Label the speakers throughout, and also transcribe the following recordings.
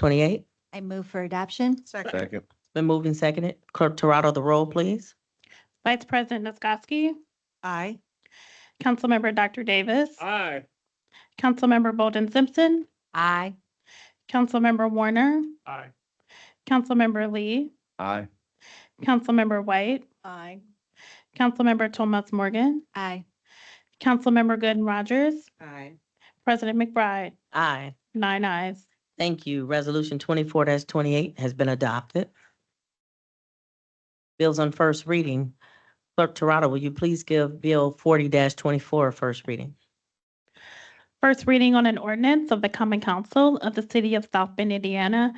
Speaker 1: 28.
Speaker 2: I move for adoption.
Speaker 3: Second.
Speaker 4: Second.
Speaker 1: Been moved and seconded. Clerk Torado, the roll, please.
Speaker 5: Vice President Niskoski,
Speaker 3: Aye.
Speaker 5: Councilmember Dr. Davis,
Speaker 4: Aye.
Speaker 5: Councilmember Bolden Simpson,
Speaker 2: Aye.
Speaker 5: Councilmember Warner,
Speaker 4: Aye.
Speaker 5: Councilmember Lee,
Speaker 4: Aye.
Speaker 5: Councilmember White,
Speaker 3: Aye.
Speaker 5: Councilmember Thomas Morgan,
Speaker 2: Aye.
Speaker 5: Councilmember Gooden Rogers,
Speaker 3: Aye.
Speaker 5: President McBride,
Speaker 1: Aye.
Speaker 5: nine ayes.
Speaker 1: Thank you. Resolution twenty-four twenty-eight has been adopted. Bills on first reading. Clerk Torado, will you please give Bill forty 24 a first reading?
Speaker 5: First reading on an ordinance of the Common Council of the City of South Bend, Indiana,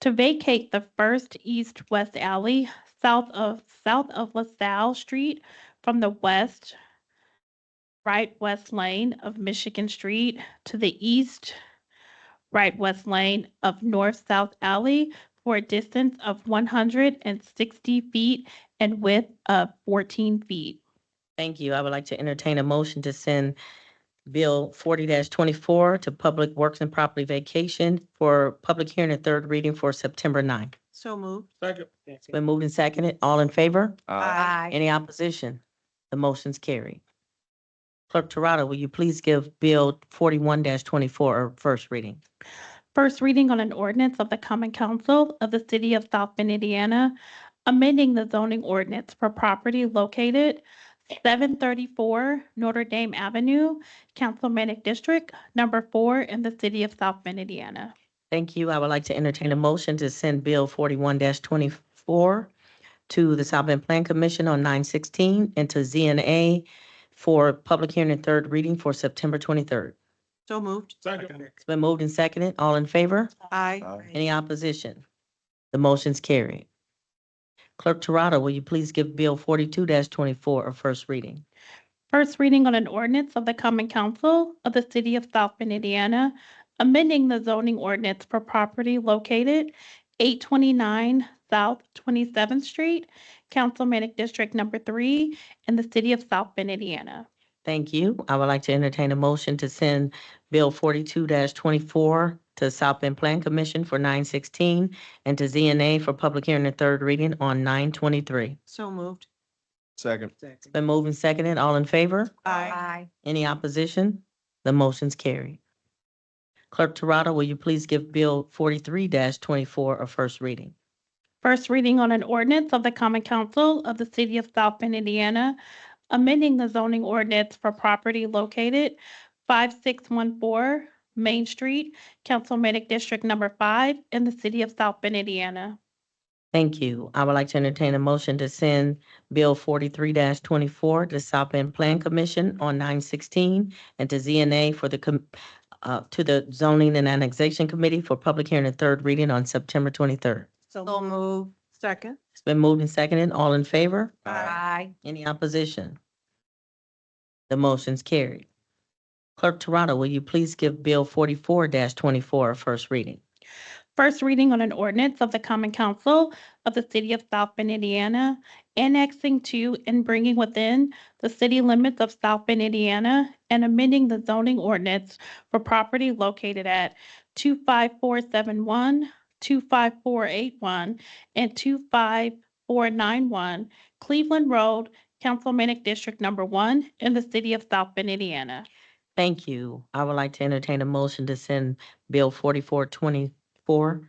Speaker 5: to vacate the first east-west alley south of, south of LaSalle Street from the west, right west lane of Michigan Street to the east, right west lane of north-south alley for a distance of one hundred and sixty feet and width of fourteen feet.
Speaker 1: Thank you. I would like to entertain a motion to send Bill forty twenty-four to Public Works and Property Vacation for public hearing and third reading for September 9th.
Speaker 3: So moved.
Speaker 4: Second.
Speaker 1: It's been moved and seconded. All in favor?
Speaker 2: Aye.
Speaker 1: Any opposition? The motion's carried. Clerk Torado, will you please give Bill forty-one twenty-four a first reading?
Speaker 5: First reading on an ordinance of the Common Council of the City of South Bend, Indiana, amending the zoning ordinance for property located seven thirty-four Notre Dame Avenue, Councilmanic District, number four in the city of South Bend, Indiana.
Speaker 1: Thank you. I would like to entertain a motion to send Bill forty-one twenty-four to the South Bend Plan Commission on nine sixteen and to ZNA for public hearing and third reading for September twenty-third.
Speaker 3: So moved.
Speaker 4: Second.
Speaker 1: It's been moved and seconded. All in favor?
Speaker 3: Aye.
Speaker 4: Aye.
Speaker 1: Any opposition? The motion's carried. Clerk Torado, will you please give Bill forty-two twenty-four a first reading?
Speaker 5: First reading on an ordinance of the Common Council of the City of South Bend, Indiana, amending the zoning ordinance for property located eight twenty-nine South Twenty-seventh Street, Councilmanic District Number Three in the city of South Bend, Indiana.
Speaker 1: Thank you. I would like to entertain a motion to send Bill forty-two twenty-four to South Bend Plan Commission for nine sixteen and to ZNA for public hearing and third reading on nine twenty-three.
Speaker 3: So moved.
Speaker 4: Second.
Speaker 3: Second.
Speaker 1: Been moved and seconded. All in favor?
Speaker 3: Aye.
Speaker 1: Any opposition? The motion's carried. Clerk Torado, will you please give Bill forty-three twenty-four a first reading?
Speaker 5: First reading on an ordinance of the Common Council of the City of South Bend, Indiana, amending the zoning ordinance for property located 5614 Main Street, Councilmanic District Number 5 in the city of South Bend, Indiana.
Speaker 1: Thank you. I would like to entertain a motion to send Bill forty-three twenty-four to South Bend Plan Commission on nine sixteen and to ZNA for the, com- uh, to the Zoning and Annexation Committee for public hearing and third reading on September twenty-third.
Speaker 2: So move.
Speaker 3: Second.
Speaker 1: It's been moved and seconded. All in favor?
Speaker 2: Aye.
Speaker 1: Any opposition? The motion's carried. Clerk Torado, will you please give Bill forty-four twenty-four a first reading?
Speaker 5: First reading on an ordinance of the Common Council of the City of South Bend, Indiana, annexing to and bringing within the city limits of South Bend, Indiana, and amending the zoning ordinance for property located at 25471, 25481, and 25491 Cleveland Road, Councilmanic District Number One in the City of South Bend, Indiana.
Speaker 1: Thank you. I would like to entertain a motion to send Bill forty-four twenty-four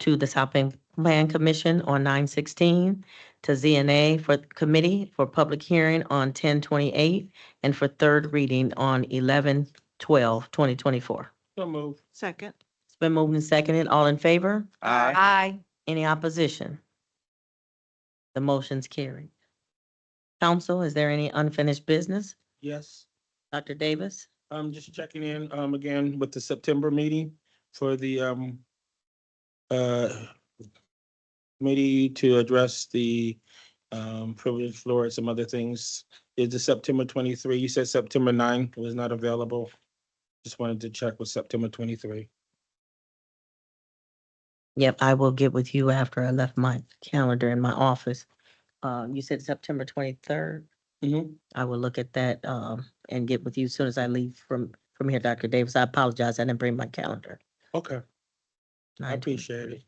Speaker 1: to the South Bend Plan Commission on nine sixteen, to ZNA for committee for public hearing on ten twenty-eight, and for third reading on 11-12-2024. twenty-four.
Speaker 4: So move.
Speaker 3: Second.
Speaker 1: It's been moved and seconded. All in favor?
Speaker 4: Aye.
Speaker 2: Aye.
Speaker 1: Any opposition? The motion's carried. Council, is there any unfinished business?
Speaker 4: Yes.
Speaker 1: Dr. Davis?
Speaker 4: I'm just checking in, um, again with the September meeting for the, um, uh, committee to address the, um, privilege floor and some other things. Is the September twenty-three, you said September nine was not available. Just wanted to check with September twenty-three.
Speaker 1: Yep, I will get with you after I left my calendar in my office. Uh, you said September twenty-third.
Speaker 4: Mm-hmm.
Speaker 1: I will look at that, um, and get with you as soon as I leave from, from here, Dr. Davis. I apologize. I didn't bring my calendar.
Speaker 4: Okay. I appreciate it.